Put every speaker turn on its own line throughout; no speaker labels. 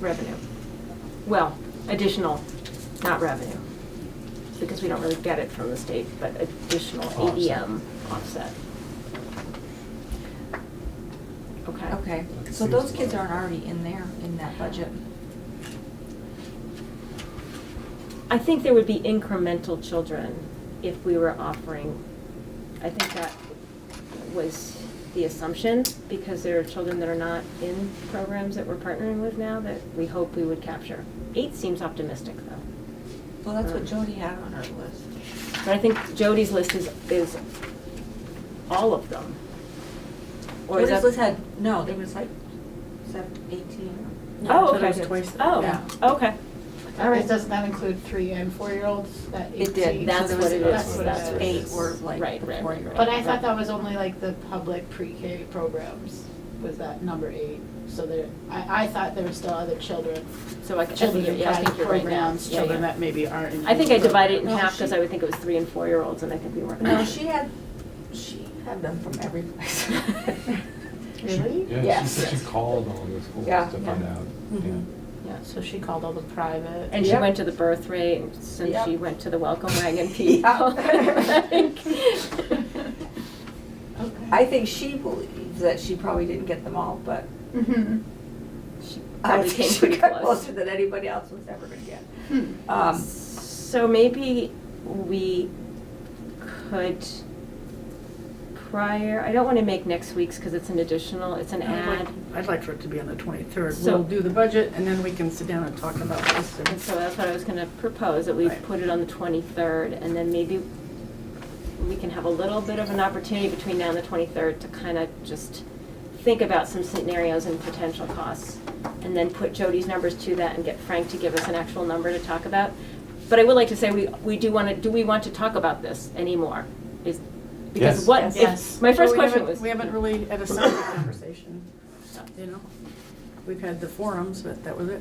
revenue. Well, additional, not revenue, because we don't really get it from the state, but additional
Offset.
ADM offset. Okay.
Okay,
Like
so those
seasonal.
kids aren't already in there, in that budget?
I think there would be incremental children if we were offering, I think that was the assumption, because there are children that are not in programs that we're partnering with now that we hope we would capture. Eight seems optimistic, though.
Well, that's what Jody had on her list.
But I think Jody's list is, is all of them. Or is
Jody's
that-
list had, no, there was like seven, eighteen.
Oh,
so
okay.
there was twice that. Yeah.
Oh, okay. All right.
It does not include three and four-year-olds, that
It did,
eighteen.
so
That's
there
what
was,
it
that's
is.
what
That's
it
what
is,
it
eight were
is.
like
Right,
the
right,
four-year-old.
right,
But I thought that was only like the public pre-K programs, was that number eight? So there, I, I thought there were still other children,
So I, I think,
children
you're-
in
yeah, I
private
think you're right now.
programs,
Yeah,
children
yeah.
that maybe aren't in.
I think I
any
divided it in
program.
half because I would think it was three and four-year-olds, and I think we weren't.
No, she had, she had them from every place.
Really?
Yeah, she
Yes.
said she called all the schools
Yeah.
to find
Yeah.
out.
Mhm.
Yeah.
So she called all the private.
And she
Yep.
went to the birth rate, and since
Yep.
she went to the welcome wagon people.
Okay.
I think she believes that she probably didn't get them all, but
Mhm.
She
I
probably
think
came
she
pretty
got
close.
closer than anybody else was ever gonna get.
Hmm.
Um,
So maybe we could prior, I don't want to make next week's because it's an additional, it's an
I'd like-
ad.
I'd like for it to be on the 23rd.
So-
We'll do the budget, and then we can sit down and talk about this.
And so that's what I was going to propose, that we
Right.
put it on the 23rd, and then maybe we can have a little bit of an opportunity between now and the 23rd to kind of just think about some scenarios and potential costs, and then put Jody's numbers to that and get Frank to give us an actual number to talk about. But I would like to say, we, we do want to, do we want to talk about this anymore? Is, because
Yes.
what, if-
Yes.
my first
Well, we
question
haven't-
was.
We haven't really had a solid conversation, you know? We've had the forums, but that was it.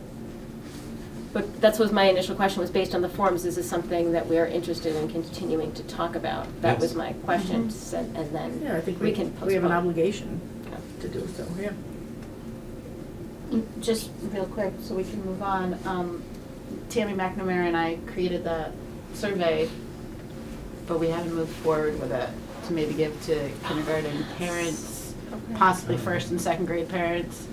But that's was my initial question, was based on the forums, is this something that we are interested in continuing to talk about? That
Yes.
was my question, s- and then
Mm-hmm. Yeah, I think
we
we
can
we have an
postpone.
obligation
Yeah.
to do so, yeah.
Just real quick, so we can move on, um, Tammy McNamara and I created the survey, but we haven't moved forward with it to maybe give to kindergarten parents, possibly first and second grade parents.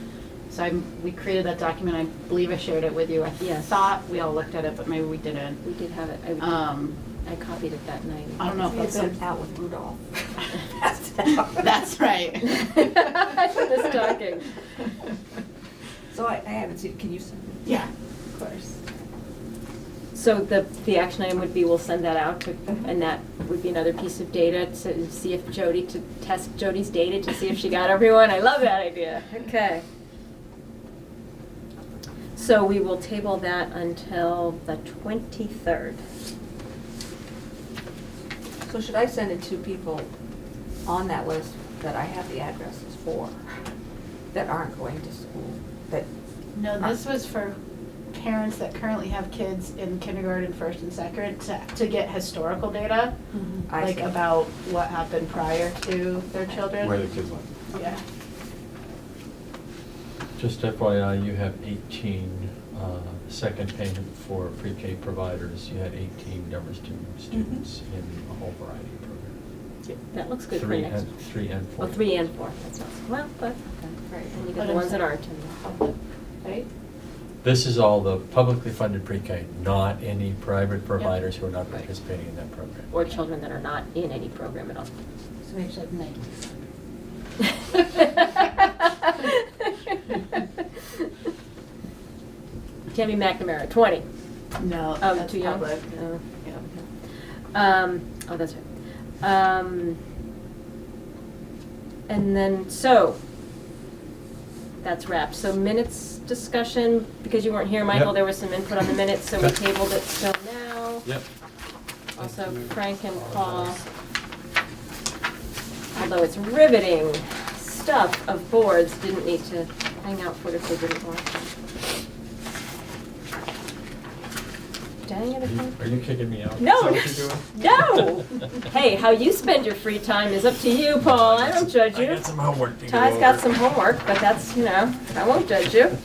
So I'm, we created that document, I believe I shared it with you. I
Yes.
thought we all looked at it, but maybe we didn't.
We did have it, I,
Um,
I copied it that night.
um,
I don't know if
we had
that's,
them
a-
out with Rudolph. Passed out.
that's right.
The stocking.
So I, I haven't seen, can you send it?
Yeah, of course.
So the, the action item would be, we'll send that out, to-
Mm-hmm.
Mhm.
and that would be another piece of data to see if Jody, to test Jody's data to see if she got everyone. I love that idea. Okay. So we will table that until the 23rd.
So should I send it to people on that list that I have the addresses for, that aren't going to school, that,
No, this was for parents that currently have kids in kindergarten, first and second, to, to get historical data,
Mm-hmm.
I
like
see.
about what happened prior to their
Mm-hmm.
children.
Where the kids went.
Yeah.
Just FYI, you have 18 uh, second payment for pre-K providers. You had 18 numbers to
Mm-hmm.
students in a whole variety of programs.
That looks good for
Three
next.
and- Three and four.
Well, three and four, that sounds, well, but,
Right.
and you
But
got the
I'm
ones that
saying-
aren't.
Public, Right?
This is all the publicly funded pre-K, not any private providers who are not participating in that program.
Or children that are not in any program at all.
So maybe it's like ninety.
Tammy McNamara, 20.
No,
Oh,
that's
too young?
public.
Oh.
Yeah.
Um, oh, that's right. Um, and then, so, that's wrapped. So minutes discussion, because you weren't here, Michael,
Yep.
there was some input on the minutes, so we
Okay.
tabled it till now.
Yep.
Also Frank and Paul. Although it's riveting stuff of boards, didn't need to hang out for it if they didn't want to. Dang it, I
Are you-
can't-
Mm-hmm. Are you kicking me out?
No.
Is that what
No.
you're doing?
Hey, how you spend your free time is up to you, Paul. I don't judge you.
I got some homework to go
Ty's got
over.
some homework, but that's, you know, I won't judge you.